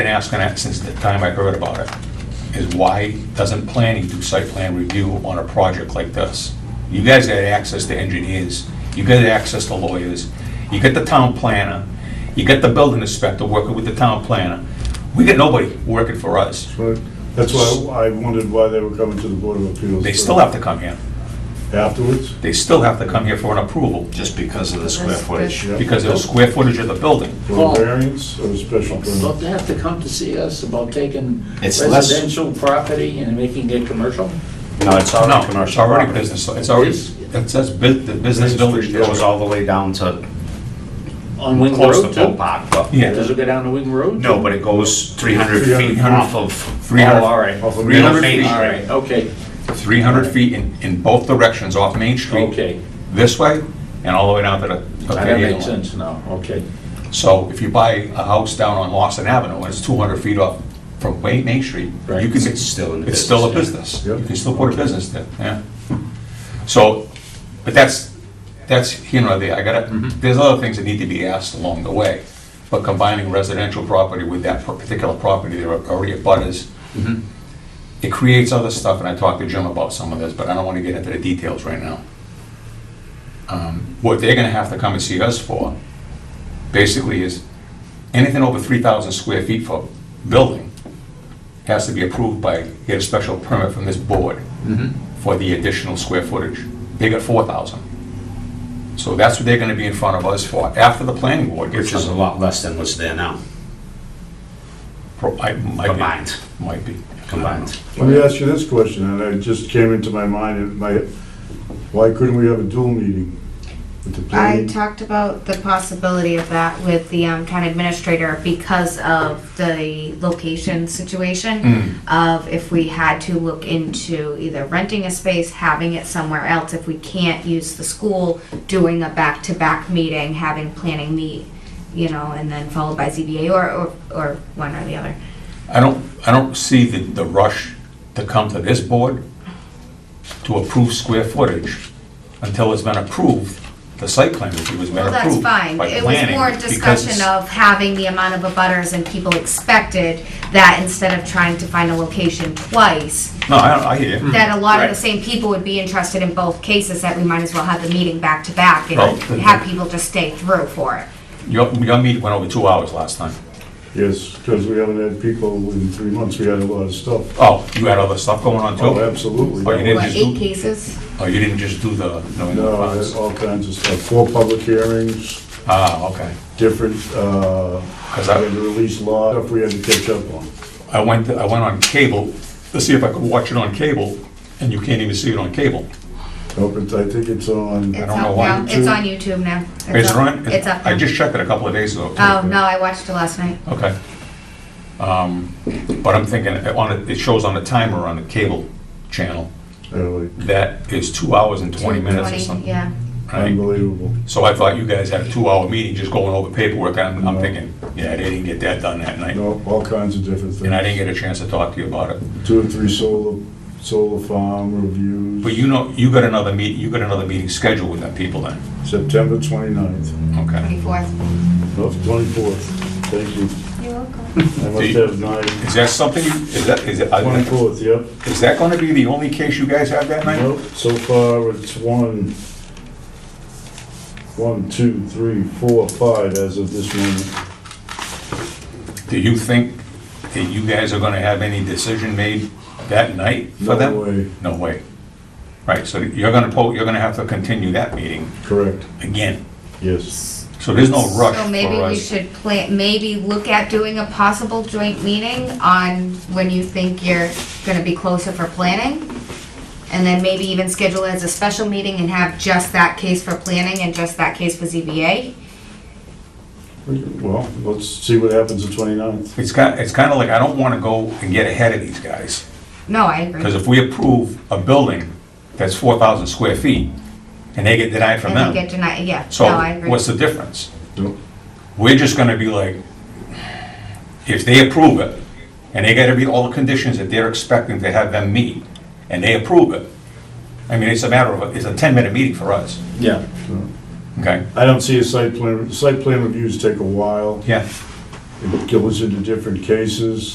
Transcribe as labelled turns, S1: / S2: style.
S1: been asking that since the time I heard about it, is why doesn't planning do site plan review on a project like this? You guys got access to engineers, you got access to lawyers, you got the town planner, you got the building inspector working with the town planner. We got nobody working for us.
S2: But That's why I wondered why they were coming to the Board of Appeals.
S1: They still have to come here.
S2: Afterwards?
S1: They still have to come here for an approval
S3: just because of the square footage.
S2: Yeah.
S1: because of the square footage of the building.
S2: For a variance or a special
S4: Don't
S2: permit?
S4: they have to come to see us about taking
S3: It's less-
S4: residential property and making it commercial?
S3: No, it's
S1: No,
S3: already
S1: it's
S3: commercial
S1: already
S3: property.
S1: business, it's already, it says bu- the business village.
S3: It goes all the way down to,
S4: On Wing
S3: close to
S4: Road
S3: Bill
S4: too?
S3: Park, but.
S1: Yeah.
S4: Does it go down to Wing Road?
S3: No, but it goes 300 feet
S2: 300.
S3: off of.
S1: 300
S3: Oh, all right.
S2: Off of
S3: Middle
S1: Main
S3: Main
S1: Street.
S4: All right,
S3: Street.
S4: okay,
S1: 300 feet in, in both directions off Main Street.
S4: okay.
S1: This way and all the way down to the.
S4: That makes sense now, okay.
S1: So if you buy a house down on Lawson Avenue and it's 200 feet off from Main, Main Street, you
S4: Right.
S1: can,
S3: It's still in the
S1: it's still a
S3: business,
S1: business.
S2: yeah.
S1: You can still put a business there, yeah. So, but that's, that's, you know, the- I gotta,
S3: Mm-hmm.
S1: there's other things that need to be asked along the way. But combining residential property with that particular property, there are already abutters.
S3: Mm-hmm.
S1: It creates other stuff, and I talked to Jim about some of this, but I don't want to get into the details right now. Um, What they're gonna have to come and see us for, basically is, anything over 3,000 square feet for building has to be approved by, get a special permit from this board for the additional square footage. They got 4,000. So that's what they're gonna be in front of us for, after the planning board gets
S3: Which is a
S1: done.
S3: lot less than what's there now,
S1: Pro- I- might be-
S3: combined,
S1: Might be.
S3: combined.
S2: Let me ask you this question, and it just came into my mind, and my, why couldn't we have a dual meeting? with the
S5: I
S2: planning?
S5: talked about the possibility of that with the um, town administrator because of the location situation
S1: Mm.
S5: of if we had to look into either renting a space, having it somewhere else, if we can't use the school, doing a back-to-back meeting, having planning meet, you know, and then followed by ZBA or, or, or one or the other.
S1: I don't, I don't see the, the rush to come to this board to approve square footage until it's been approved, the site plan review has been
S5: Well, that's
S1: approved by planning.
S5: fine. It was more a
S1: because
S5: discussion
S1: it's-
S5: of having the amount of abutters and people expected that instead of trying to find a location twice,
S1: No, I, I hear you.
S5: that a lot of the
S1: Right.
S5: same people would be interested in both cases, that we might as well have the meeting back to back
S1: Well,
S5: and
S1: then-
S5: have people just stay through for it.
S1: Your, your meeting went over two hours last time.
S2: Yes, because we haven't had people in three months, we had a lot of stuff.
S1: Oh, you had other stuff going on too?
S2: Oh, absolutely.
S1: Oh, you did?
S5: What,
S1: just
S5: eight
S1: do-
S5: cases?
S1: Oh, you didn't just do the New England
S2: No, I had
S1: Farms?
S2: uh, all kinds of stuff, four public hearings,
S1: Ah, okay.
S2: different, uh, we
S1: Because I-
S2: had to release law, stuff we had to catch up on.
S1: I went, I went on cable to see if I could watch it on cable, and you can't even see it on cable.
S2: Nope, it's- I think it's on.
S5: It's
S1: don't know
S5: up
S1: why.
S5: now. It's on YouTube now.
S1: Is
S5: It's
S1: it
S5: up-
S1: on?
S5: It's up
S1: I
S5: now.
S1: just checked it a couple of days ago. too.
S5: Oh, no, I watched it last night.
S1: Okay. Um, But I'm thinking, it on it- it shows on the timer on the cable channel,
S2: Really,
S1: that is two hours and 20 minutes or
S5: 2:20,
S1: something.
S5: Yeah.
S1: right?
S2: Unbelievable.
S1: So I thought you guys had a two-hour meeting just going over paperwork, I'm I'm thinking, yeah, they didn't get that done that night.
S2: No, all kinds of different things.
S1: And I didn't get a chance to talk to you about it.
S2: Two or three solar, solar farm reviews.
S1: But you know, you got another meet, you got another meeting scheduled with them people then?
S2: September 29th,
S1: Okay.
S5: 24th.
S2: of 24th. Thank you.
S5: You're welcome.
S2: I
S1: Do
S2: must
S1: you-
S2: have nine.
S1: Is that something, you- is that, is that, I-
S2: 24th, yep.
S1: is that gonna be the only case you guys have that night?
S2: Nope, so far it's one, one, two, three, four, five as of this moment.
S1: Do you think that you guys are gonna have any decision made that night for
S2: No
S1: them?
S2: way.
S1: No way. Right, so you're gonna, po- you're gonna have to continue that meeting
S2: Correct,
S1: again.
S2: yes.
S1: So there's no rush
S5: So maybe
S1: for
S5: we
S1: us.
S5: should plan, maybe look at doing a possible joint meeting on when you think you're gonna be closer for planning. And then maybe even schedule it as a special meeting and have just that case for planning and just that case for ZBA.
S2: Well, let's see what happens the 29th.
S1: It's kind, it's kinda like, I don't wanna go and get ahead of these guys.
S5: No, I agree.
S1: Because if we approve a building that's 4,000 square feet, and they get denied from
S5: And then get
S1: them,
S5: denied, yeah, no,
S1: so
S5: I agree.
S1: what's the difference?
S2: Nope.
S1: We're just gonna be like, if they approve it, and they gotta meet all the conditions that they're expecting to have them meet, and they approve it, I mean, it's a matter of, it's a 10-minute meeting for us,
S4: Yeah.
S1: okay?
S2: I don't see a site plan, site plan reviews take a while.
S1: Yeah,
S2: It goes into different cases.